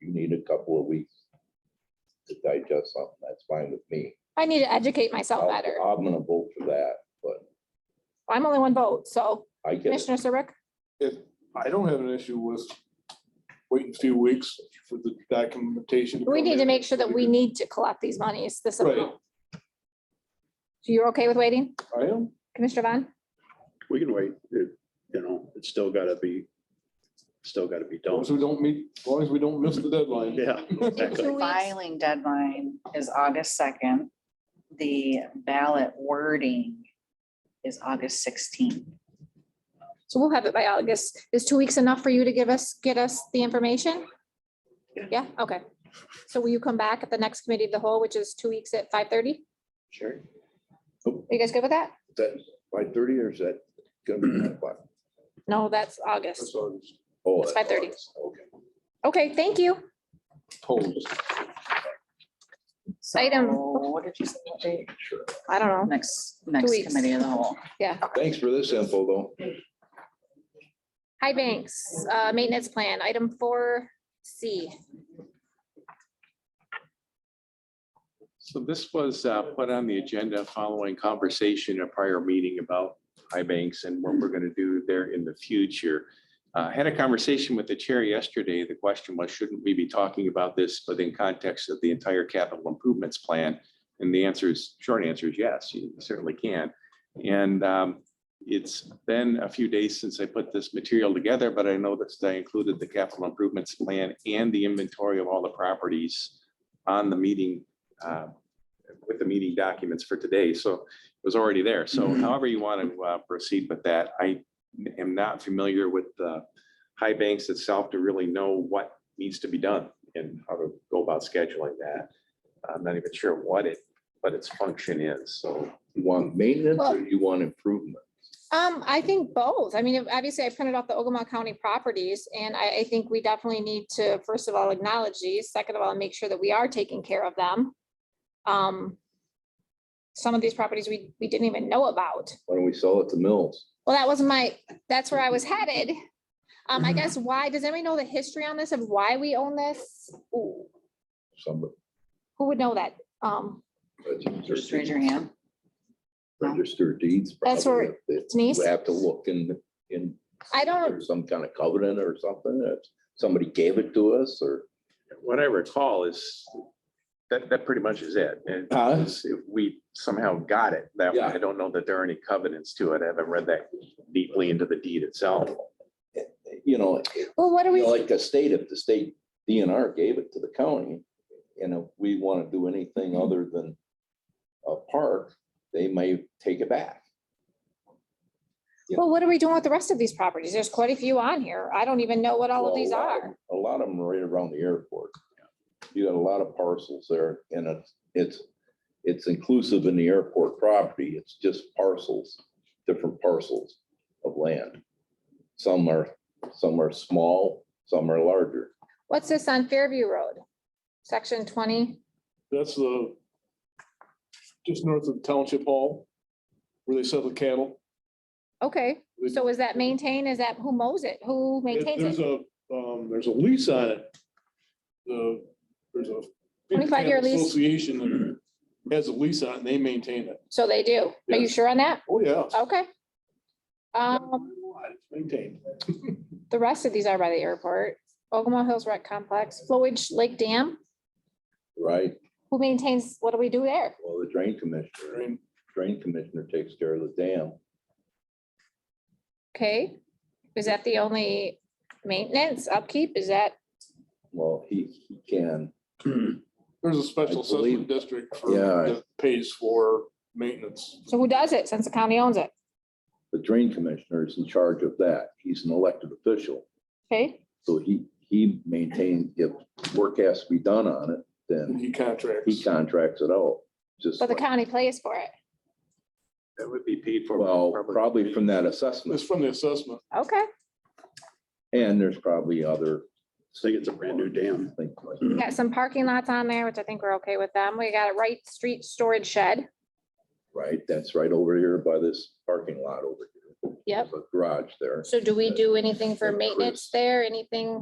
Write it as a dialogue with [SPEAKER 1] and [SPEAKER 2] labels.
[SPEAKER 1] you need a couple of weeks to digest something, that's fine with me.
[SPEAKER 2] I need to educate myself
[SPEAKER 1] I'll-
[SPEAKER 2] better.
[SPEAKER 1] I'm gonna vote for that, but
[SPEAKER 2] I'm only one vote, so
[SPEAKER 1] I get, it.
[SPEAKER 2] Commissioner Serbrook,
[SPEAKER 3] I don't have an issue with waiting a few weeks for the documentation.
[SPEAKER 2] we
[SPEAKER 3] come
[SPEAKER 2] need to
[SPEAKER 3] in.
[SPEAKER 2] make sure that we need to collect these monies, this
[SPEAKER 3] Right.
[SPEAKER 2] amount. So you're okay with waiting,
[SPEAKER 3] I am,
[SPEAKER 2] Commissioner Vaughn?
[SPEAKER 4] We can wait, it- you know, it's still gotta be, still gotta be
[SPEAKER 3] as long
[SPEAKER 4] done.
[SPEAKER 3] as we don't meet, as long as we don't miss the deadline.
[SPEAKER 4] Yeah, exactly.
[SPEAKER 2] weeks.
[SPEAKER 5] Filing deadline is August second. The ballot wording is August sixteenth.
[SPEAKER 2] So we'll have it by August. Is two weeks enough for you to give us, get us the information? Yeah, okay. So will you come back at the next committee of the whole, which is two weeks at five thirty?
[SPEAKER 4] Sure.
[SPEAKER 2] Are you guys good with that?
[SPEAKER 1] that, by thirty or is that gonna be? my fault?
[SPEAKER 2] No, that's August.
[SPEAKER 3] That's August.
[SPEAKER 1] Oh,
[SPEAKER 2] It's
[SPEAKER 1] that's
[SPEAKER 2] 5:30.
[SPEAKER 1] August, Okay.
[SPEAKER 2] Okay, thank you.
[SPEAKER 3] Polls.
[SPEAKER 2] Item-
[SPEAKER 5] What did you say? what date?
[SPEAKER 2] I don't know.
[SPEAKER 5] Next, next
[SPEAKER 2] weeks.
[SPEAKER 5] committee of the whole.
[SPEAKER 1] Thanks for this info, though.
[SPEAKER 2] High Banks, uh, maintenance plan, item four C.
[SPEAKER 6] So this was uh, put on the agenda following conversation at a prior meeting about high banks and what we're going to do there in the future. Uh, Had a conversation with the chair yesterday. The question was, shouldn't we be talking about this within context of the entire capital improvements plan? And the answer is, short answer is yes, you certainly can. And um, it's been a few days since I put this material together, but I know that I included the capital improvements plan and the inventory of all the properties on the meeting uh, with the meeting documents for today, so it was already there. So however you want to uh, proceed with that, I am not familiar with the high banks itself to really know what needs to be done and how to go about scheduling that. I'm not even sure what it, what its function is, so.
[SPEAKER 1] You want maintenance or
[SPEAKER 2] Well-
[SPEAKER 1] you want improvement?
[SPEAKER 2] Um, I think both. I mean, obviously I printed off the Ogama County properties and I, I think we definitely need to, first of all, acknowledge these, second of all, make sure that we are taking care of them. Um, some of these properties we, we didn't even know about.
[SPEAKER 1] Why don't we sell it to Mills?
[SPEAKER 2] Well, that was my, that's where I was headed. Um, I guess why, does anybody know the history on this of why we own this? Ooh,
[SPEAKER 1] Somebody.
[SPEAKER 2] Who would know that? Um,
[SPEAKER 5] Just raise your hand.
[SPEAKER 1] Register deeds.
[SPEAKER 2] That's
[SPEAKER 1] probably,
[SPEAKER 2] where-
[SPEAKER 1] if it-
[SPEAKER 2] Denise?
[SPEAKER 1] You have to look in, in.
[SPEAKER 2] I don't-
[SPEAKER 1] there's Some kind of covenant or something, that somebody gave it to us, or
[SPEAKER 6] What I recall is that, that pretty much is it. And
[SPEAKER 3] Huh?
[SPEAKER 6] it's- if we somehow got it that way.
[SPEAKER 1] Uh-huh. Yeah.
[SPEAKER 6] I don't know that there are any covenants to it. I haven't read that deeply into the deed itself.
[SPEAKER 1] you know,
[SPEAKER 2] well, what are we?
[SPEAKER 1] like the state, if the state DNR gave it to the county, and if we want to do anything
[SPEAKER 2] Mm-hmm.
[SPEAKER 1] other than a park, they may take it back. Yeah.
[SPEAKER 2] Well, what are we doing with the rest of these properties? There's quite a few on here. I don't even know what all of
[SPEAKER 1] Well, a
[SPEAKER 2] these
[SPEAKER 1] lot
[SPEAKER 2] are.
[SPEAKER 1] A lot of them are right around the airport. You got a lot of parcels there and it's, it's, it's inclusive in the airport property. It's just parcels, different parcels of land. Some are, some are small, some are larger.
[SPEAKER 2] What's this on Fairview Road? Section twenty?
[SPEAKER 3] That's the, just north of Township Hall, where they sell the cattle.
[SPEAKER 2] Okay, so is that maintained? Is that who mows it? Who
[SPEAKER 3] It-
[SPEAKER 2] maintains
[SPEAKER 3] There's
[SPEAKER 2] it?
[SPEAKER 3] a, um, there's a lease on it. The, there's a.
[SPEAKER 2] 25-year lease?
[SPEAKER 3] Association that has a lease on it, and they maintain it.
[SPEAKER 2] So they do. Are you
[SPEAKER 3] Yes.
[SPEAKER 2] sure on that?
[SPEAKER 3] Oh, yeah.
[SPEAKER 2] Okay. Um,
[SPEAKER 3] It's Maintained.
[SPEAKER 2] the rest of these are by the airport. Ogama Hills Rec Complex, Flowage Lake Dam,
[SPEAKER 1] Right,
[SPEAKER 2] who maintains, what do we do there?
[SPEAKER 1] well, the drain commissioner,
[SPEAKER 3] Drain-
[SPEAKER 1] drain commissioner takes care of the dam.
[SPEAKER 2] Okay, is that the only maintenance upkeep? Is that,
[SPEAKER 1] Well, he, he can,
[SPEAKER 3] There's a special
[SPEAKER 1] I believe-
[SPEAKER 3] assessment district for,
[SPEAKER 1] Yeah.
[SPEAKER 3] that pays for maintenance.
[SPEAKER 2] so who does it since the county owns it?
[SPEAKER 1] the drain commissioner is in charge of that. He's an elected official.
[SPEAKER 2] Okay,
[SPEAKER 1] So he, he maintains, if work has to be done on it, then
[SPEAKER 3] He
[SPEAKER 1] he
[SPEAKER 3] contracts.
[SPEAKER 1] contracts it out, just,
[SPEAKER 2] but the
[SPEAKER 1] like-
[SPEAKER 2] county pays for it.
[SPEAKER 6] That would be paid for. by
[SPEAKER 1] well,
[SPEAKER 6] public-
[SPEAKER 1] probably from that
[SPEAKER 3] It's
[SPEAKER 1] assessment,
[SPEAKER 3] from the assessment.
[SPEAKER 2] Okay,
[SPEAKER 1] and there's probably other
[SPEAKER 4] I think it's a brand new dam.
[SPEAKER 1] things like.
[SPEAKER 2] we got some parking lots on there, which I think we're okay with them. We got a right street storage shed.
[SPEAKER 1] Right, that's right over here by this parking lot over here.
[SPEAKER 2] Yep.
[SPEAKER 1] There's a Garage there.
[SPEAKER 2] So do we do anything for
[SPEAKER 1] Increase.
[SPEAKER 2] maintenance there? Anything